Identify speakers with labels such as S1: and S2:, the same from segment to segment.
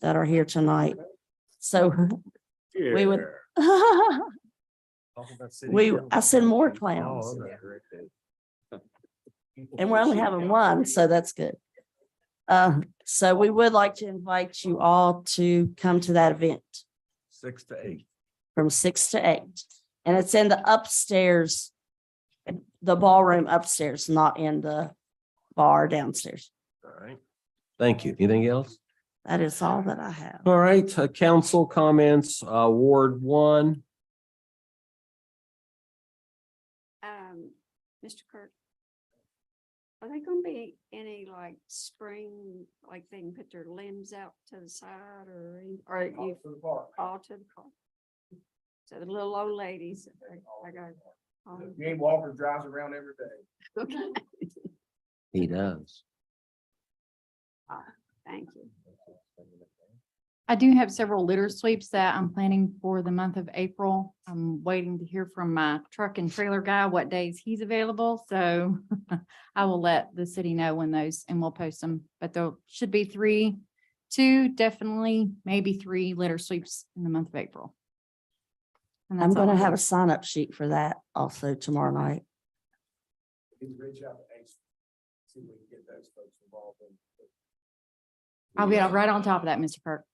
S1: that are here tonight. So We would-
S2: Yeah. Talk about city
S1: We-
S2: council.
S1: I send more
S2: Oh,
S1: clowns.
S2: okay, great, great.
S1: And we're only having one, so that's good. Uh, so we would like to invite you all to come to that event
S2: Six to eight.
S1: from six to eight. And it's in the upstairs, the ballroom upstairs, not in the bar downstairs.
S2: All right.
S3: Thank you. Anything else?
S1: That is all that I have.
S3: All right, uh, council comments, uh, Ward one.
S4: Um, Mr. Kirk. Are they gonna be any like spring, like they can put their limbs out to the side or, any- or you, all to the car? So the little old ladies, I- I got. um,
S5: Jay Walker drives around every day.
S4: okay,
S3: He does.
S4: Ah, Thank you.
S6: I do have several litter sweeps that I'm planning for the month of April. I'm waiting to hear from my truck and trailer guy what days he's available, so I will let the city know when those, and we'll post them, but there should be three, two, definitely, maybe three litter sweeps in the month of April. And
S1: I'm
S6: that's all
S1: gonna
S6: I
S1: have a sign up sheet for that also tomorrow night.
S5: He's reach out to Ace. See if we can get those folks involved in.
S6: I'll be right on top of that, Mr. Kirk.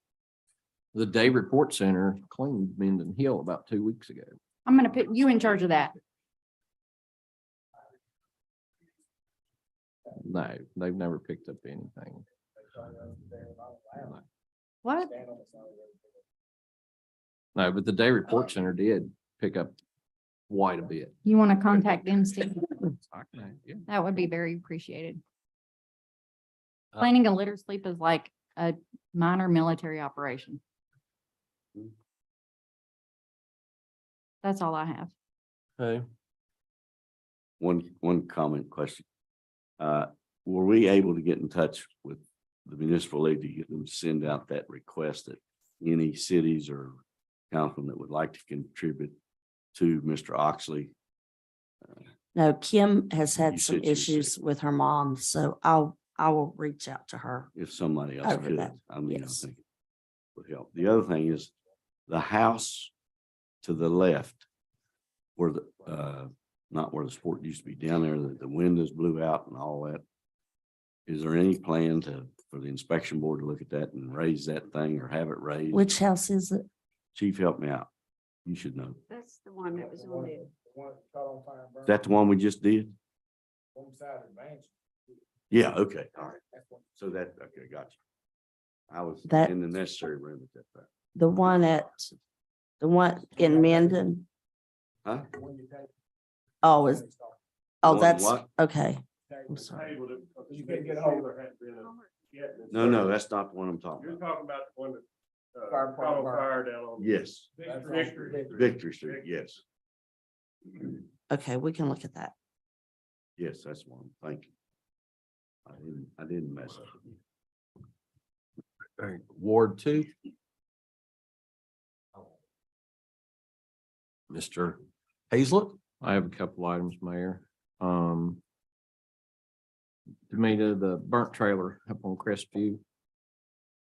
S3: The Day Report Center claimed Menden Hill about two weeks ago.
S6: I'm gonna put you in charge of that.
S3: No, they've never picked up anything.
S6: What?
S3: No, but the Day
S2: Uh.
S3: Report Center did pick up quite a bit.
S6: You want to contact them, Steve?
S3: Yeah.
S6: That would be very appreciated.
S3: Uh,
S6: Planning a litter sleep is like a minor military operation. That's all I have.
S3: Okay.
S7: One, one comment question. Uh, were we able to get in touch with the municipal league to get them to send out that request that any cities or councilman that would like to contribute to Mr. Oxley?
S1: No, Kim has
S7: You
S1: had some
S7: said she was sick.
S1: issues with her mom, so I'll, I will reach out to her.
S7: if somebody else
S1: Over
S7: could,
S1: that,
S7: I mean, I
S1: yes.
S7: think it would help. The other thing is the house to the left where the, uh, not where the sport used to be down there, that the windows blew out and all that. Is there any plan to, for the inspection board to look at that and raise that thing or have it raised?
S1: Which house is it?
S7: Chief, help me out. You should know.
S4: That's the one that was on it.
S7: Is that the one we just did?
S5: One side of the mansion.
S7: Yeah, okay, all right. So that, okay, got you. I was
S1: That-
S7: in the necessary room at that time.
S1: The one at, the one in Mendon?
S7: Huh?
S1: Oh, is, oh,
S7: One
S1: that's,
S7: what?
S1: okay. I'm sorry.
S5: You can't get hold of her.
S7: No, no, that's not the one I'm talking about.
S2: talking about the one that, uh,
S5: Fire department. caught on fire
S2: down on.
S7: Yes.
S5: Victory.
S7: Victory Street, yes,
S1: Okay, we can look at that.
S7: yes, that's one, thank you. I didn't, I didn't mess up.
S3: All right, Ward two. Mr. Hazlet? I have a couple items, Mayor. Um. Demita, the burnt trailer up on Crestview,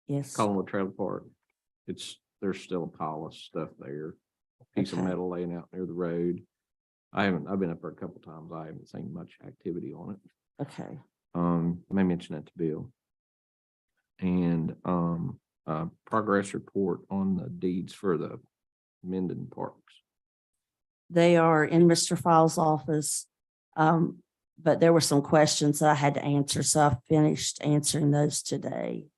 S1: Yes.
S3: Collinwood Trailer Park. It's, there's still a pile of stuff there. Piece of
S1: Okay.
S3: metal laying out near the road. I haven't, I've been up there a couple times. I haven't seen much activity on it.
S1: Okay,
S3: Um, may mention that to Bill. And, um, uh, progress report on the deeds for the Menden Parks.
S1: they are in Mr. Files' office. Um, but there were some questions that I had to answer, so I finished answering those today.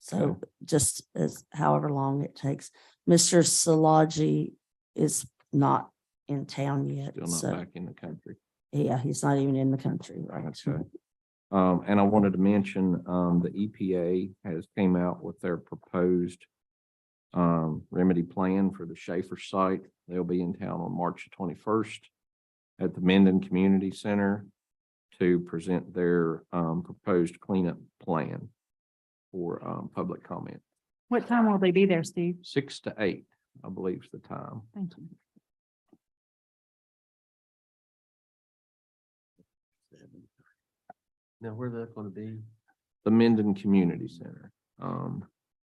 S1: So
S3: Okay.
S1: just as however long it takes. Mr. Salaji is not in town yet,
S3: Still not
S1: so,
S3: back in the country.
S1: yeah, he's not even in the country, right?
S3: Okay. Um, and I wanted to mention, um, the EPA has came out with their proposed um, remedy plan for the Schaefer site. They'll be in town on March twenty-first at the Menden Community Center to present their, um, proposed cleanup plan for, um, public comment.
S6: What time will they be there, Steve?
S3: Six to eight, I believe is the time.
S6: Thank you.
S3: Now, where that gonna be? The Menden Community Center. Um,